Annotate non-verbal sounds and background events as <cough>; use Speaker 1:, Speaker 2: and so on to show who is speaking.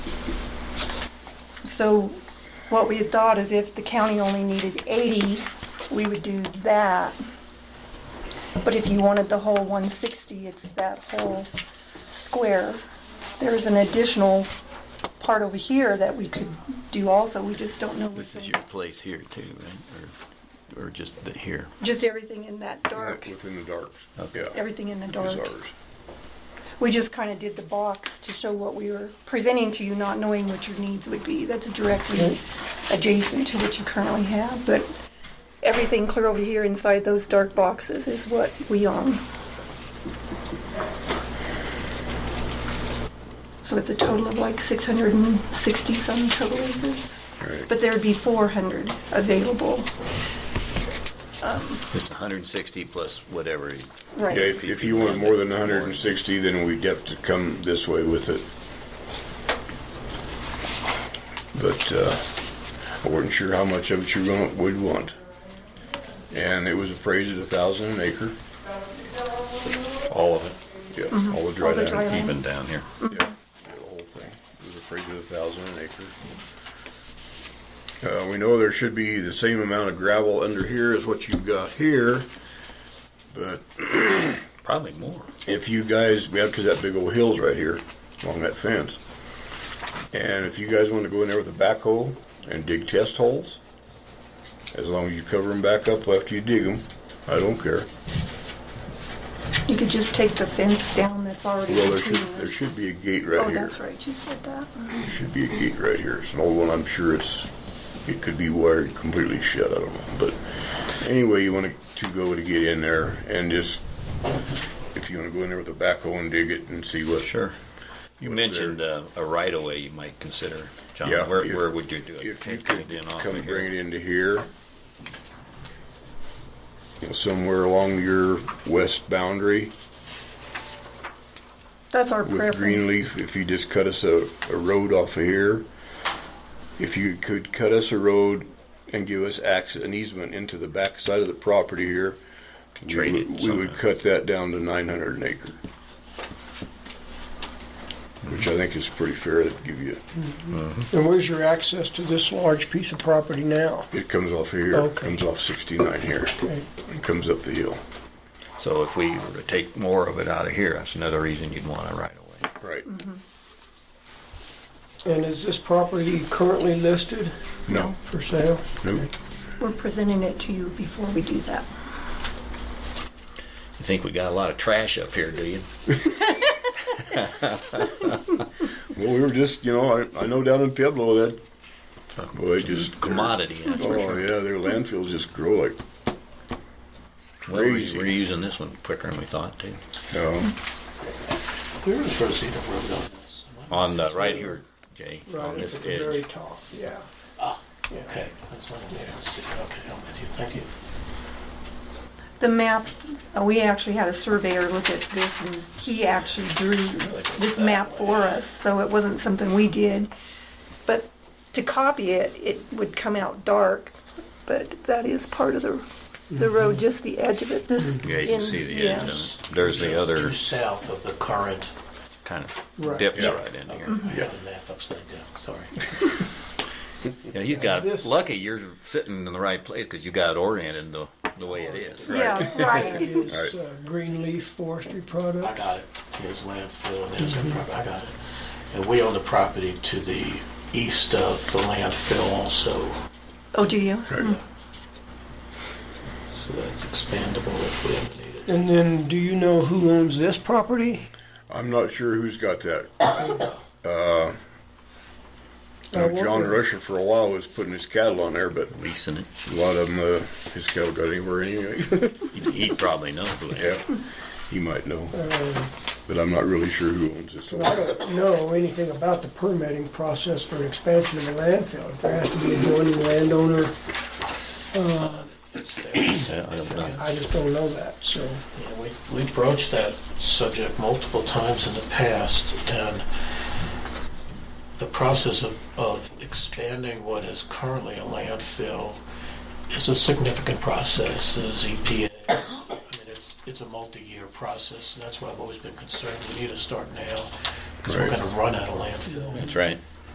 Speaker 1: So what we had thought is if the county only needed 80, we would do that. But if you wanted the whole 160, it's that whole square. There's an additional part over here that we could do also, we just don't know.
Speaker 2: This
Speaker 1: what's
Speaker 2: is
Speaker 1: in-
Speaker 2: your place here too, right? Or, or just the, here?
Speaker 1: Just everything in that dark,
Speaker 3: Within the dark.
Speaker 2: Okay.
Speaker 3: Yeah,
Speaker 1: everything in the
Speaker 3: Is
Speaker 1: dark.
Speaker 3: ours.
Speaker 1: We just kind of did the box to show what we were presenting to you, not knowing what your needs would be. That's directly adjacent to what you currently have, but everything clear over here inside those dark boxes is what we own. So it's a total of like 660 some total acres,
Speaker 3: Right.
Speaker 1: but there'd be 400 available.
Speaker 2: This 160 plus
Speaker 4: e,
Speaker 2: whatever.
Speaker 1: Right.
Speaker 3: Yeah, if, if you want more than hundred and sixty, then we'd have to come this way with it. But, uh, I wasn't sure how much of it you want, would want. And it was appraised at a thousand an acre,
Speaker 4: All of it,
Speaker 3: yeah, all the
Speaker 1: Mm-hmm. All
Speaker 3: dry
Speaker 1: the dry
Speaker 3: land.
Speaker 1: land.
Speaker 4: even down here.
Speaker 3: Yeah, the whole thing. It was appraised at a thousand an acre. Uh, we know there should be the same amount of gravel under here as what you've got here, but
Speaker 4: Probably more.
Speaker 3: if you guys, yeah, because that big old hill's right here along that fence. And if you guys want to go in there with a backhoe and dig test holes, as long as you cover them back up after you dig them, I don't care.
Speaker 1: You could just take the fence down that's already
Speaker 3: Well, there
Speaker 1: between.
Speaker 3: should, there
Speaker 1: them.
Speaker 3: should be a gate right
Speaker 1: Oh,
Speaker 3: here.
Speaker 1: that's right, you said that.
Speaker 3: There should be a gate right here. It's an old one. I'm sure it's, it could be wired completely shut. I don't know. But anyway, you want to go to get in there and just, if you want to go in there with a backhoe and dig it and see what.
Speaker 4: Sure. You
Speaker 3: What's
Speaker 4: mentioned uh, a right of way you might consider, John.
Speaker 3: Yeah,
Speaker 4: Where,
Speaker 3: if-
Speaker 4: where would you do it?
Speaker 3: If you
Speaker 4: Take
Speaker 3: could
Speaker 4: it in off
Speaker 3: come
Speaker 4: of here.
Speaker 3: bring it into here, you know, somewhere along your west boundary
Speaker 1: That's our
Speaker 3: with
Speaker 1: preference.
Speaker 3: green leaf, if you just cut us a, a road off of here, if you could cut us a road and give us access, an easement into the back side of the property here, we
Speaker 4: Trade it
Speaker 3: would- we would
Speaker 4: somehow.
Speaker 3: cut that down to nine hundred an acre. Which I think is pretty fair to give you,
Speaker 5: And where's your access to this large piece of property now?
Speaker 3: it comes off of here,
Speaker 5: Okay.
Speaker 3: comes off sixty-nine here,
Speaker 5: Okay.
Speaker 3: and comes up the hill.
Speaker 4: So if we were to take more of it out of here, that's another reason you'd want a right of way.
Speaker 3: Right.
Speaker 5: And is this property currently listed
Speaker 3: No.
Speaker 5: for sale?
Speaker 3: Nope.
Speaker 1: We're presenting it to you before we do that.
Speaker 4: You think we got a lot of trash up here, do you?
Speaker 3: Well, we were just, you know, I, I know down in Pueblo that, boy, just
Speaker 4: Commodity, that's
Speaker 3: Oh
Speaker 4: for sure.
Speaker 3: yeah, their landfills just grow like.
Speaker 4: Well, we-
Speaker 3: Oh, crazy.
Speaker 4: we're using this one quicker than we thought to.
Speaker 3: Um,
Speaker 6: Where is Rosita Road on this?
Speaker 4: On the, right here, Jay, on
Speaker 5: Right at
Speaker 4: this
Speaker 5: the very
Speaker 4: edge.
Speaker 5: top, yeah.
Speaker 6: Okay, that's what I'm here to see. Okay, I'm with you. Thank you.
Speaker 1: The map, uh, we actually had a surveyor look at this and he actually drew this map for us, so it wasn't something we did. But to copy it, it would come out dark, but that is part of the, the road, just the edge of it, this.
Speaker 4: Yeah, you can
Speaker 1: in-
Speaker 4: see the
Speaker 1: yeah.
Speaker 4: edge of it. There's the other
Speaker 6: Just south of the current.
Speaker 4: kind of
Speaker 5: Right.
Speaker 4: dips
Speaker 3: Yeah.
Speaker 4: right in here. Mm-hmm.
Speaker 6: Yeah. The map upside down, sorry.
Speaker 4: Yeah, he's got
Speaker 5: This-
Speaker 4: lucky. You're sitting in the right place because you got oriented the the way it is.
Speaker 1: Yeah,
Speaker 5: <laughs> That
Speaker 1: right.
Speaker 5: is uh, Greenleaf Forestry
Speaker 6: I
Speaker 5: Products.
Speaker 6: got it. Here's landfill and here's our property. I got it. And we own the property to the east of the landfill also.
Speaker 1: Oh, do you?
Speaker 6: So that's expandable if we ever need it.
Speaker 5: And then, do you know who owns this property?
Speaker 3: I'm not sure who's got that. <coughs>
Speaker 5: I
Speaker 3: Now, uh, John
Speaker 5: wonder-
Speaker 3: Rusher for a while was putting his cattle on there, but
Speaker 4: Leasing it.
Speaker 3: a lot of them, uh, his cattle got anywhere anyway. <laughs>
Speaker 4: He'd- He'd probably know who it is.
Speaker 3: yeah, he might know, but I'm not really sure who owns this.
Speaker 5: Uh, I don't know anything about the permitting process for an expansion of a landfill. If There has to be adjoining landowner.
Speaker 6: It's there.
Speaker 4: Yeah, I don't know.
Speaker 5: I just don't know that, so.
Speaker 6: Yeah, we, we broached that subject multiple times in the past, and the process of, of expanding what is currently a landfill is a significant process, as EPA. I mean, it's, it's a multi-year process, and that's why I've always been concerned, we need to start now, because we're
Speaker 3: Right.
Speaker 6: gonna run out of landfill.
Speaker 4: That's right.